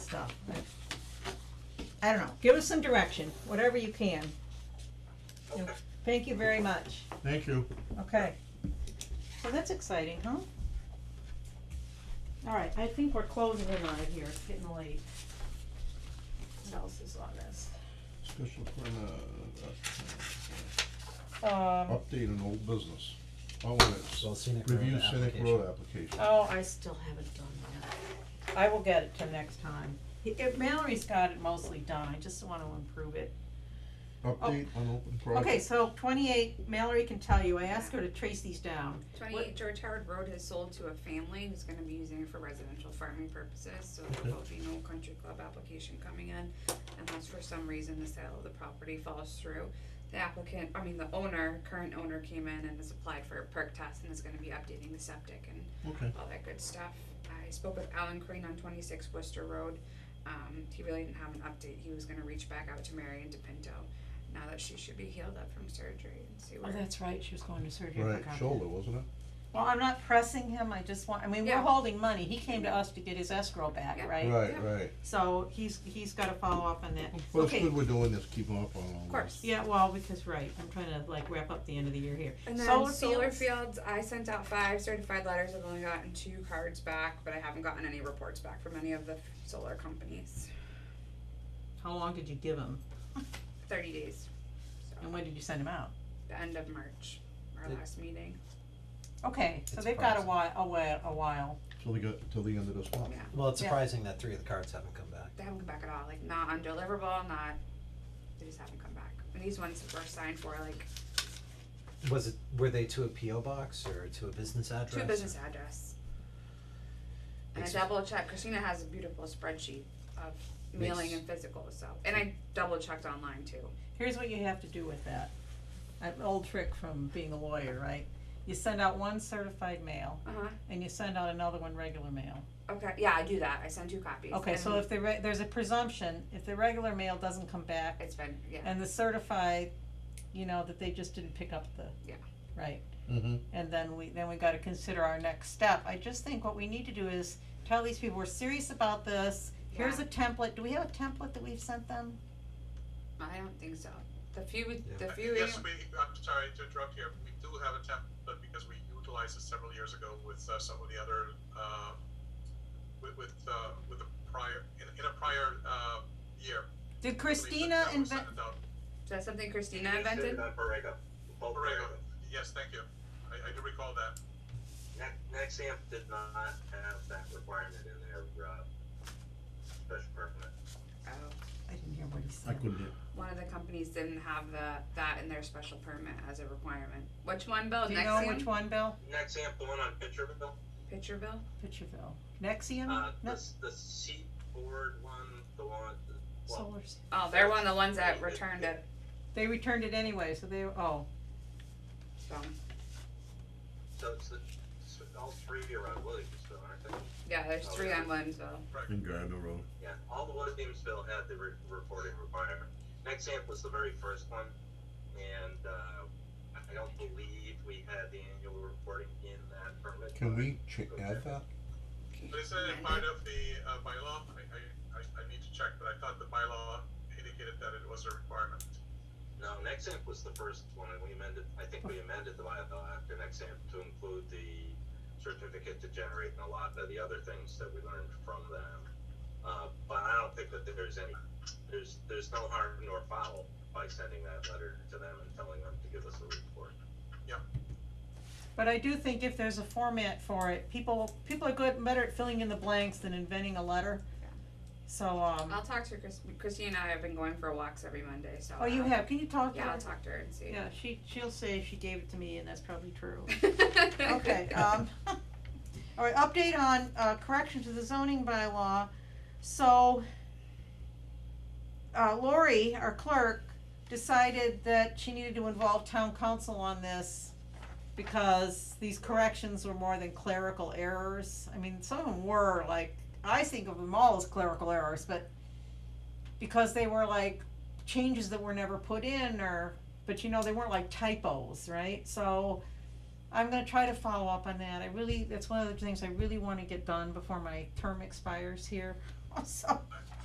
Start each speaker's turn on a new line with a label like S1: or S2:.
S1: stuff, but. I don't know, give us some direction, whatever you can. You know, Thank you very much,
S2: Thank you.
S1: okay. So that's exciting, huh? Alright, I think we're closing in on it here, it's getting late. What else is on this?
S2: Special permit, uh, uh,
S1: Um,
S2: update on old business. Oh, it is.
S3: So scenic road
S2: Review scenic
S3: application.
S2: road application.
S1: oh, I still haven't done that. I will get it to next time. He- if Mallory's got it mostly done, I just wanna improve it.
S2: Update on open project.
S1: Okay, so twenty-eight, Mallory can tell you, I asked her to trace these down. What-
S4: Twenty-eight George Howard Road has sold to a family who's gonna be using it for residential farming purposes, so there will be no country club application coming in unless for some reason the sale of the property falls through. The applicant, I mean, the owner, current owner came in and has applied for a perk test and is gonna be updating the septic and
S2: Okay.
S4: all that good stuff. I spoke with Alan Crane on twenty-six Worcester Road. Um, he really didn't have an update. He was gonna reach back out to Marion DePinto now that she should be healed up from surgery and see
S1: Oh,
S4: where.
S1: that's right, she was going to surgery. I
S2: Right,
S1: forgot.
S2: shoulder, wasn't it?
S1: Well, I'm not pressing him, I just want, I mean, we're
S4: Yeah.
S1: holding money, he came to us to get his escrow back,
S4: Yeah.
S1: right?
S2: Right,
S4: Yeah.
S2: right.
S1: So he's, he's gotta follow up on that.
S2: Well, it's
S1: Okay,
S2: good we're doing this, keeping up on all this.
S4: Of course.
S1: yeah, well, because, right, I'm trying to like wrap up the end of the year here.
S4: And then solar, fields. I sent out five certified letters. I've only gotten two cards back, but I haven't gotten any reports back from any of the f- solar companies.
S1: How long did you give him,
S4: Thirty days. So
S1: and when did you send him out?
S4: the end of March, our
S3: Did-
S4: last meeting.
S1: Okay, so
S3: It's
S1: they've got a
S3: frozen.
S1: while, a while, a while.
S2: Till they got, till the end of this month.
S4: Yeah,
S3: Well, it's
S1: Yeah.
S3: surprising that three of the cards haven't come back.
S4: they haven't come back at all. Like not undeliverable, not. They just haven't come back. And these ones were signed for like
S3: Was it, were they to a PO box or to a business address?
S4: to a business
S3: or-
S4: address. And I
S3: Makes-
S4: double checked. Christina has a beautiful spreadsheet of mailing
S3: Makes-
S4: and physical. So, and I double checked online too.
S1: Here's what you have to do with that. An old trick from being a lawyer, right? You send out one certified mail,
S4: Uh huh.
S1: and you send out another one regular mail.
S4: Okay. Yeah, I do that. I send two copies.
S1: Okay, so
S4: and
S1: if the re- there's a presumption, if the regular mail doesn't come back
S4: it's been yeah.
S1: and the certified, you know, that they just didn't pick up the.
S4: Yeah.
S1: Right,
S2: Mm-hmm.
S1: and then we, then we gotta consider our next step. I just think what we need to do is tell these people, we're serious about this. Here's
S4: Yeah.
S1: a template. Do we have a template that we've sent them?
S4: I don't think so. The few, the
S3: Yeah.
S4: few,
S5: Yes, we, I'm sorry to interrupt here, we do have a template because we utilized it several years ago with uh, some of the other, uh, with, with, uh, with a prior, in, in a prior, uh, year.
S1: Did
S5: I believe that
S1: Christina
S5: that was
S1: invent,
S5: sent out.
S4: is that something Christina invented?
S6: Not Borrego. Bo
S5: Borrego,
S6: Borrego.
S5: yes, thank you, I, I do recall that.
S6: Ne- Nexamp did not have that requirement in their, uh, special permit.
S4: Oh,
S1: I didn't hear what he
S2: I
S1: said.
S2: couldn't, hear-
S4: one of the companies didn't have the, that in their special permit as a requirement. Which one, Bill?
S1: Do you know
S4: Nexium?
S1: which one, Bill?
S6: Nexamp, the one on Pitcherville,
S4: Pitcherville?
S1: Pitcherville. Nexium?
S6: uh,
S1: No,
S6: this, the Seaboard one, the one, the- well,
S1: Solar. City.
S4: Oh, they're one of the ones that returned it,
S1: They returned it anyway, so they, oh,
S4: so,
S6: so it's the, so all three are on Williamsville, aren't they?
S4: yeah, there's
S6: Oh,
S4: three
S6: yeah.
S4: on Williamsville.
S2: in Gardner Road.
S6: Yeah, all the Williamsville had the re- reporting requirement. Nexamp was the very first one, and, uh, I don't believe we had the annual reporting in that permit.
S2: Can we ch- add that?
S5: But isn't it part of the, uh, bylaw? I, I, I, I need to check, but I thought the bylaw indicated that it was a requirement.
S6: No, Nexamp was the first one, and we amended, I think we amended the bylaw after Nexamp to include the certificate to generate and a lot of the other things that we learned from them. Uh, but I don't think that there's any, there's, there's no harm nor foul by sending that letter to them and telling them to give us a report.
S1: But I do think if there's a format for it, people, people are good, better at filling in the blanks than inventing a letter.
S4: Yeah.
S1: So, um,
S4: I'll talk to Chris, Christina and I have been going for walks every Monday, so.
S1: oh, you
S4: I'll-
S1: have, can you talk to her?
S4: Yeah, I'll talk to her and see.
S1: Yeah, she, she'll say she gave it to me and that's probably true. Okay, um, all right, update on, uh, correction to the zoning bylaw, so, uh, Lori, our clerk, decided that she needed to involve town council on this because these corrections were more than clerical errors, I mean, some of them were, like, I think of them all as clerical errors, but because they were like changes that were never put in or, but you know, they weren't like typos, right, so I'm gonna try to follow up on that. I really, that's one of the things I really wanna get done before my term expires here. So,
S5: I,